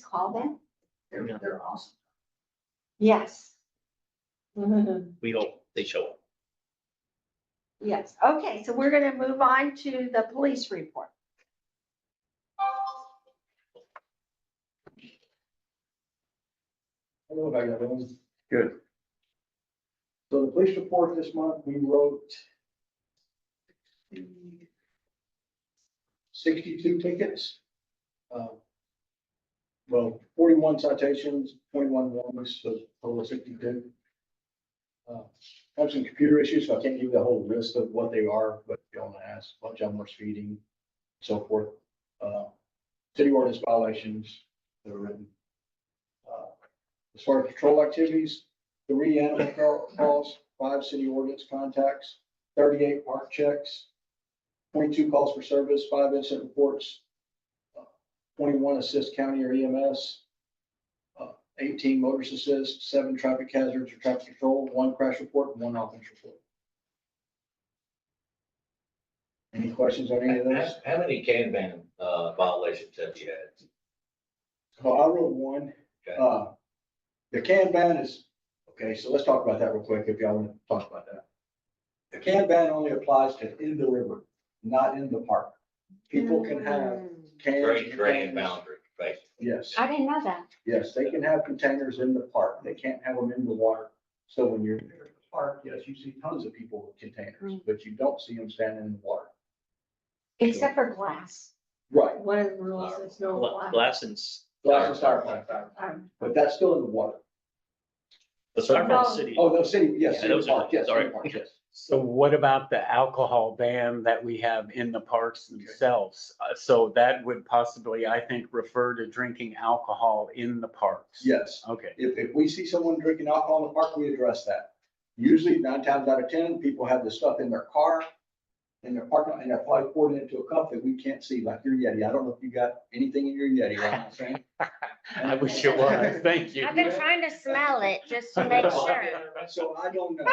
called that? They're, Yeah. they're awesome. Yes. We hope they show up. Yes, okay, so we're gonna move on to the police report. Hello, how you doing? Good. So the police report this month, we wrote sixty-two tickets. uh, Well, forty-one citations, twenty-one warnings, so total of sixty-two. Uh, I Have some computer issues, so I can't give you the whole list of what they are, but if you want to ask, a bunch of them were speeding, so forth. Uh, City ordinance violations that are written. Uh, as far as patrol activities, three animal cal- calls, five city ordinance contacts, thirty-eight park checks, twenty-two calls for service, five incident reports, uh, twenty-one assist county or EMS, uh, eighteen motorist assist, seven traffic hazards or traffic control, one crash report, and one offense report. Any questions on any of those? How, how many Kanban uh, violations have you had? So I wrote one, Okay. uh, the Kanban is, okay, so let's talk about that real quick, if y'all want to talk about that. The Kanban only applies to in the river, not in the park. People Mm. can have cans. Drain, drain and containers. boundary, basically. Yes, I didn't know that. yes, they can have containers in the park, they can't have them in the water. So when you're in the park, yes, you see tons of people with containers, Mm. but you don't see them standing in the water. Except for glass. Right. One of the rules is no Oh, Gla- glass. Glass and s- Glass is styrofoam, Um, but that's still in the water. the Starbucks No. City. Oh, no, city, yes, Yeah, city those are- park, yes, sorry. city park, yes. So what about the alcohol ban that we have in the parks themselves? Uh, So that would possibly, I think, refer to drinking alcohol in the parks. Yes. Okay, If, if we see someone drinking alcohol in the park, we address that. Usually nine times out of ten, people have the stuff in their car, in their parking, lot, and they're probably pouring it into a cup that we can't see, like your Yeti. I don't know if you got anything in your Yeti, you know what I'm saying? I wish it was. Thank you. I've been trying to smell it just to make sure. So I don't know.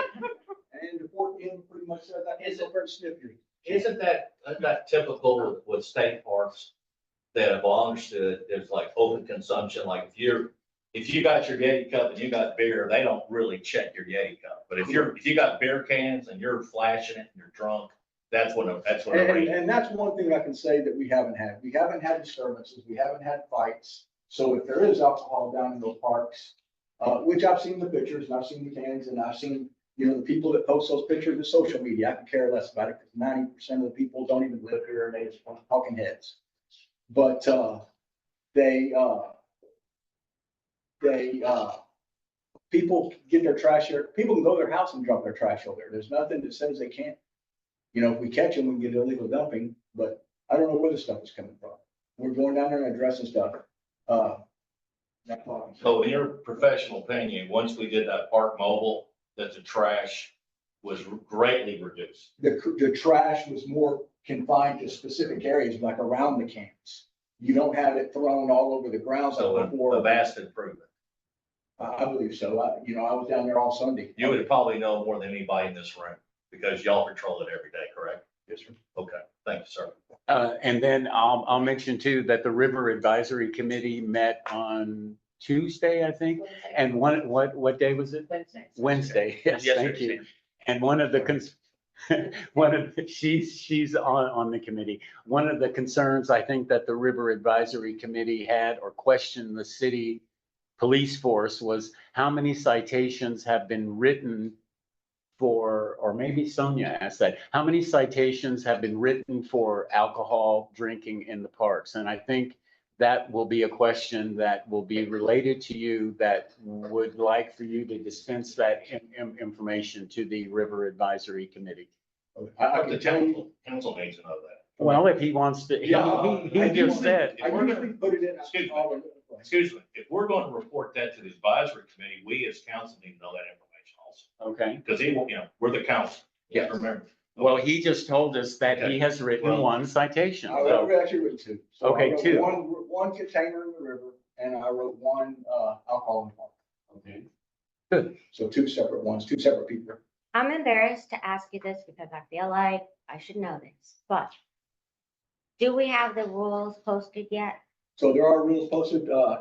And the fourth in pretty much said that, it's a first sniffing. Isn't that, isn't that typical with- with state parks? That have understood, there's like open consumption, like if you're, if you got your Yeti cup and you got beer, they don't really check your Yeti cup. But if you're, if you got beer cans and you're flashing it and you're drunk, that's when, a- that's when. a And, raid- and that's one thing I can say that we haven't had. We haven't had disturbances, we haven't had fights. So if there is alcohol down in those parks, uh, which I've seen the pictures and I've seen the cans and I've seen, you know, the people that post those pictures to social media, I could care less about it because ninety percent of the people don't even live here and they just want talking heads. But, uh, they, uh, they, uh, people get their trash here, people can go to their house and drop their trash over there. There's nothing that says they can't you know, if we catch them, we get illegal dumping, but I don't know where the stuff is coming from. We're going down there and addressing stuff. Uh, that's all I'm saying. So in your professional opinion, once we did that park mobile, that the trash was greatly reduced. The, cr- the trash was more confined to specific areas, like around the camps. You don't have it thrown all over the grounds So like a- a before. vast improvement. I I believe so. I, you know, I was down there all Sunday. You would probably know more than anybody in this room because y'all patrol it every day, correct? Yes, sir. Okay, thank you, sir. Uh, and then I'll, I'll mention too that the River Advisory Committee met on Tuesday, I think. And one, what, what day was it? Wednesday, yes, thank you. Yesterday. And one of the cons, one of, the- she's, she's on, on the committee. One of the concerns I think that the River Advisory Committee had or questioned the city police force was how many citations have been written for, or maybe Sonia asked that, how many citations have been written for alcohol drinking in the parks? And I think that will be a question that will be related to you that would like for you to dispense that in- in- information to the River Advisory Committee. I, I The can tell you. council, council needs to know that. Well, if he wants to, he- Yeah, he, he I just do. said, I usually put it in. Excuse me. Excuse me, if we're going to report that to the advisory committee, we as council need to know that information also. okay. Because they, will- you know, we're the council. Yes. Remember. Well, he just told us that Okay. he has written Well- one citation, I so, wrote, actually wrote two. So I Okay, wrote two. One, one container in the river and I wrote one, uh, alcohol in the park. okay. So two separate ones, two separate people. I'm embarrassed to ask you this because I feel like I should know this, but do we have the rules posted yet? So there are rules posted, uh,